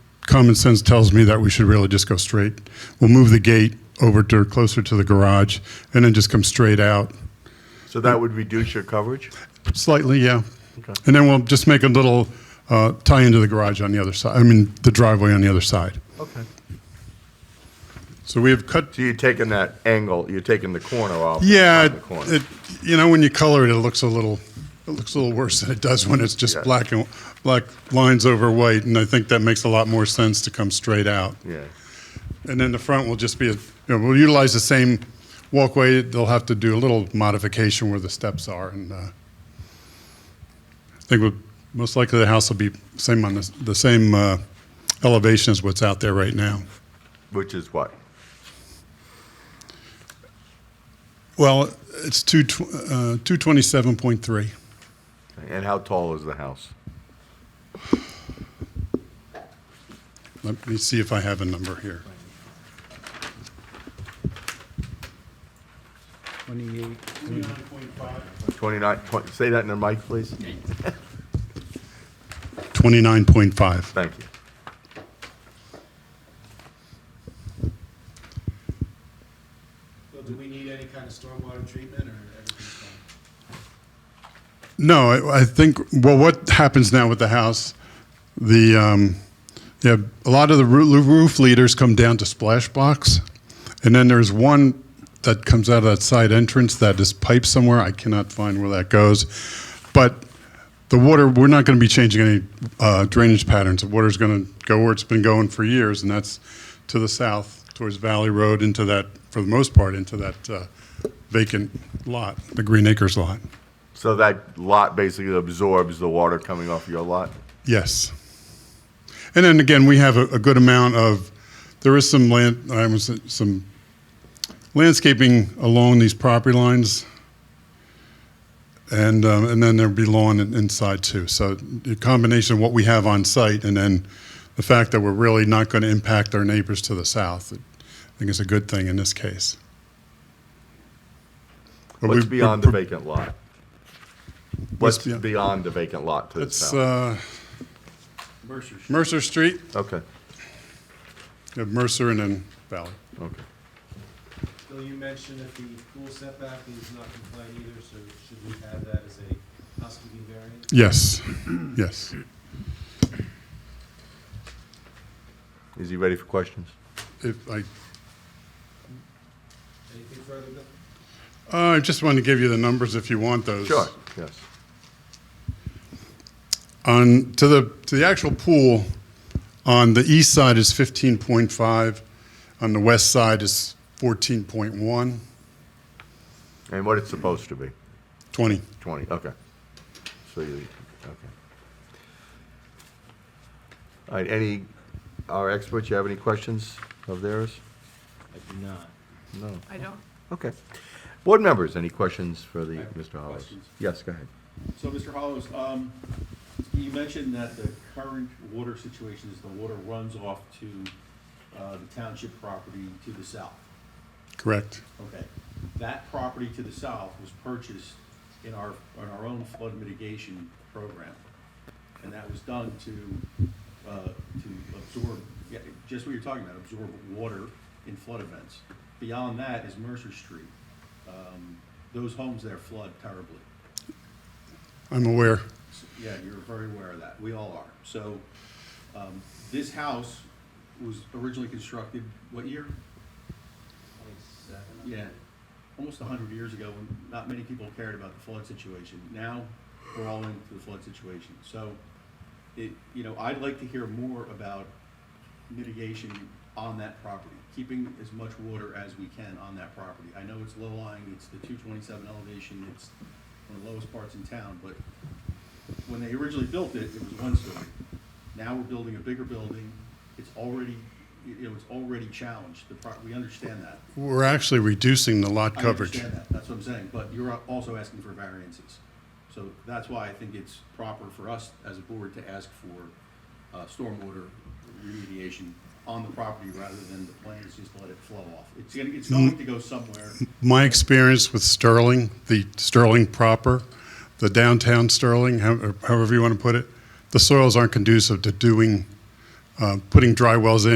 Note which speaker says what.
Speaker 1: common sense tells me that we should really just go straight. We'll move the gate over to closer to the garage and then just come straight out
Speaker 2: So that would reduce your coverage?
Speaker 1: slightly, yeah.
Speaker 2: Okay.
Speaker 1: And then we'll just make a little uh, tie into the garage on the other side. I mean, the driveway on the other side.
Speaker 2: Okay.
Speaker 1: So we have cut.
Speaker 2: So you're taking that angle, you're taking the corner off?
Speaker 1: Yeah,
Speaker 2: not the corner.
Speaker 1: it, you know, when you color it, it looks a little, it looks a little worse than it does when it's just
Speaker 2: Yeah.
Speaker 1: black and black lines over white. And I think that makes a lot more sense to come straight out.
Speaker 2: Yeah,
Speaker 1: And then the front will just be, a, you know, we'll utilize the same walkway. They'll have to do a little modification where the steps are, and uh, I think we'll, most likely the house will be same on the, the same uh, elevation as what's out there right now.
Speaker 2: which is what?
Speaker 1: Well, it's two tw- uh, two twenty seven point three.
Speaker 2: And how tall is the house?
Speaker 1: Let me see if I have a number here.
Speaker 3: 28,
Speaker 2: 29, 20 say that in the mic, please?
Speaker 1: Twenty nine point five.
Speaker 2: Thank you.
Speaker 4: Well, do we need any kind of stormwater treatment or everything's fine?
Speaker 1: No, I, I think, well, what happens now with the house, the, um, yeah, a lot of the roo- roof leaders come down to splash box. And then there's one that comes out of that side entrance that is piped somewhere. I cannot find where that goes. But the water, we're not going to be changing any uh, drainage patterns. The water's going to go where it's been going for years, and that's to the south, towards Valley Road, into that, for the most part, into that uh, vacant lot, the Green Acres lot.
Speaker 2: So that lot basically absorbs the water coming off your lot?
Speaker 1: Yes. And then again, we have a, a good amount of, there is some land, I was, some landscaping along these property lines. And, um, and then there'll be lawn in- inside too. So the combination of what we have on site and then the fact that we're really not going to impact our neighbors to the south, I think is a good thing in this case. But
Speaker 2: What's
Speaker 1: we-
Speaker 2: beyond the vacant lot? What's
Speaker 1: beyond-
Speaker 2: beyond the vacant lot to the
Speaker 1: It's,
Speaker 2: south?
Speaker 1: uh,
Speaker 3: Mercer Street.
Speaker 1: Mercer Street,
Speaker 2: Okay,
Speaker 1: you have Mercer and then Valley.
Speaker 2: okay.
Speaker 4: Bill, you mentioned that the pool setback is not compliant either, so should we have that as a housekeeping variant?
Speaker 1: Yes, yes.
Speaker 2: Is he ready for questions?
Speaker 1: If I,
Speaker 4: Anything further, Bill?
Speaker 1: uh, I just wanted to give you the numbers if you want those.
Speaker 2: Sure, yes.
Speaker 1: On, to the, to the actual pool, on the east side is 15.5, on the west side is 14.1,
Speaker 2: And what it's supposed to be?
Speaker 1: 20.
Speaker 2: 20, okay. So you, okay. All right, any, our experts, you have any questions of theirs?
Speaker 3: I do not.
Speaker 2: No,
Speaker 5: I don't,
Speaker 2: okay. Board members, any questions for the,
Speaker 6: I have
Speaker 2: Mr. Hollis?
Speaker 6: questions.
Speaker 2: Yes, go ahead.
Speaker 6: So, Mr. Hollows, um, you mentioned that the current water situation is the water runs off to, uh, the township property to the south.
Speaker 1: Correct.
Speaker 6: Okay. That property to the south was purchased in our, on our own flood mitigation program. And that was done to, uh, to absorb, yeah, just what you're talking about, absorb water in flood events. Beyond that is Mercer Street. Um, those homes there flood terribly.
Speaker 1: I'm aware.
Speaker 6: Yeah, you're very aware of that. We all are. So, um, this house was originally constructed, what year? Yeah, almost a hundred years ago, when not many people cared about the flood situation. Now, we're all into the flood situation. So, it, you know, I'd like to hear more about mitigation on that property, keeping as much water as we can on that property. I know it's low lying, it's the two twenty-seven elevation, it's one of the lowest parts in town, but when they originally built it, it was one story. Now we're building a bigger building, it's already, you know, it's already challenged, the pro, we understand that.
Speaker 1: We're actually reducing the lot
Speaker 6: I
Speaker 1: coverage.
Speaker 6: understand that, that's what I'm saying, but you're also asking for variances. So that's why I think it's proper for us as a board to ask for uh, stormwater remediation on the property rather than the plan is just let it flow off. It's gonna, it's going to go somewhere.
Speaker 1: My experience with Sterling, the Sterling proper, the downtown Sterling, how- however you want to put it, the soils aren't conducive to doing uh, putting dry wells in.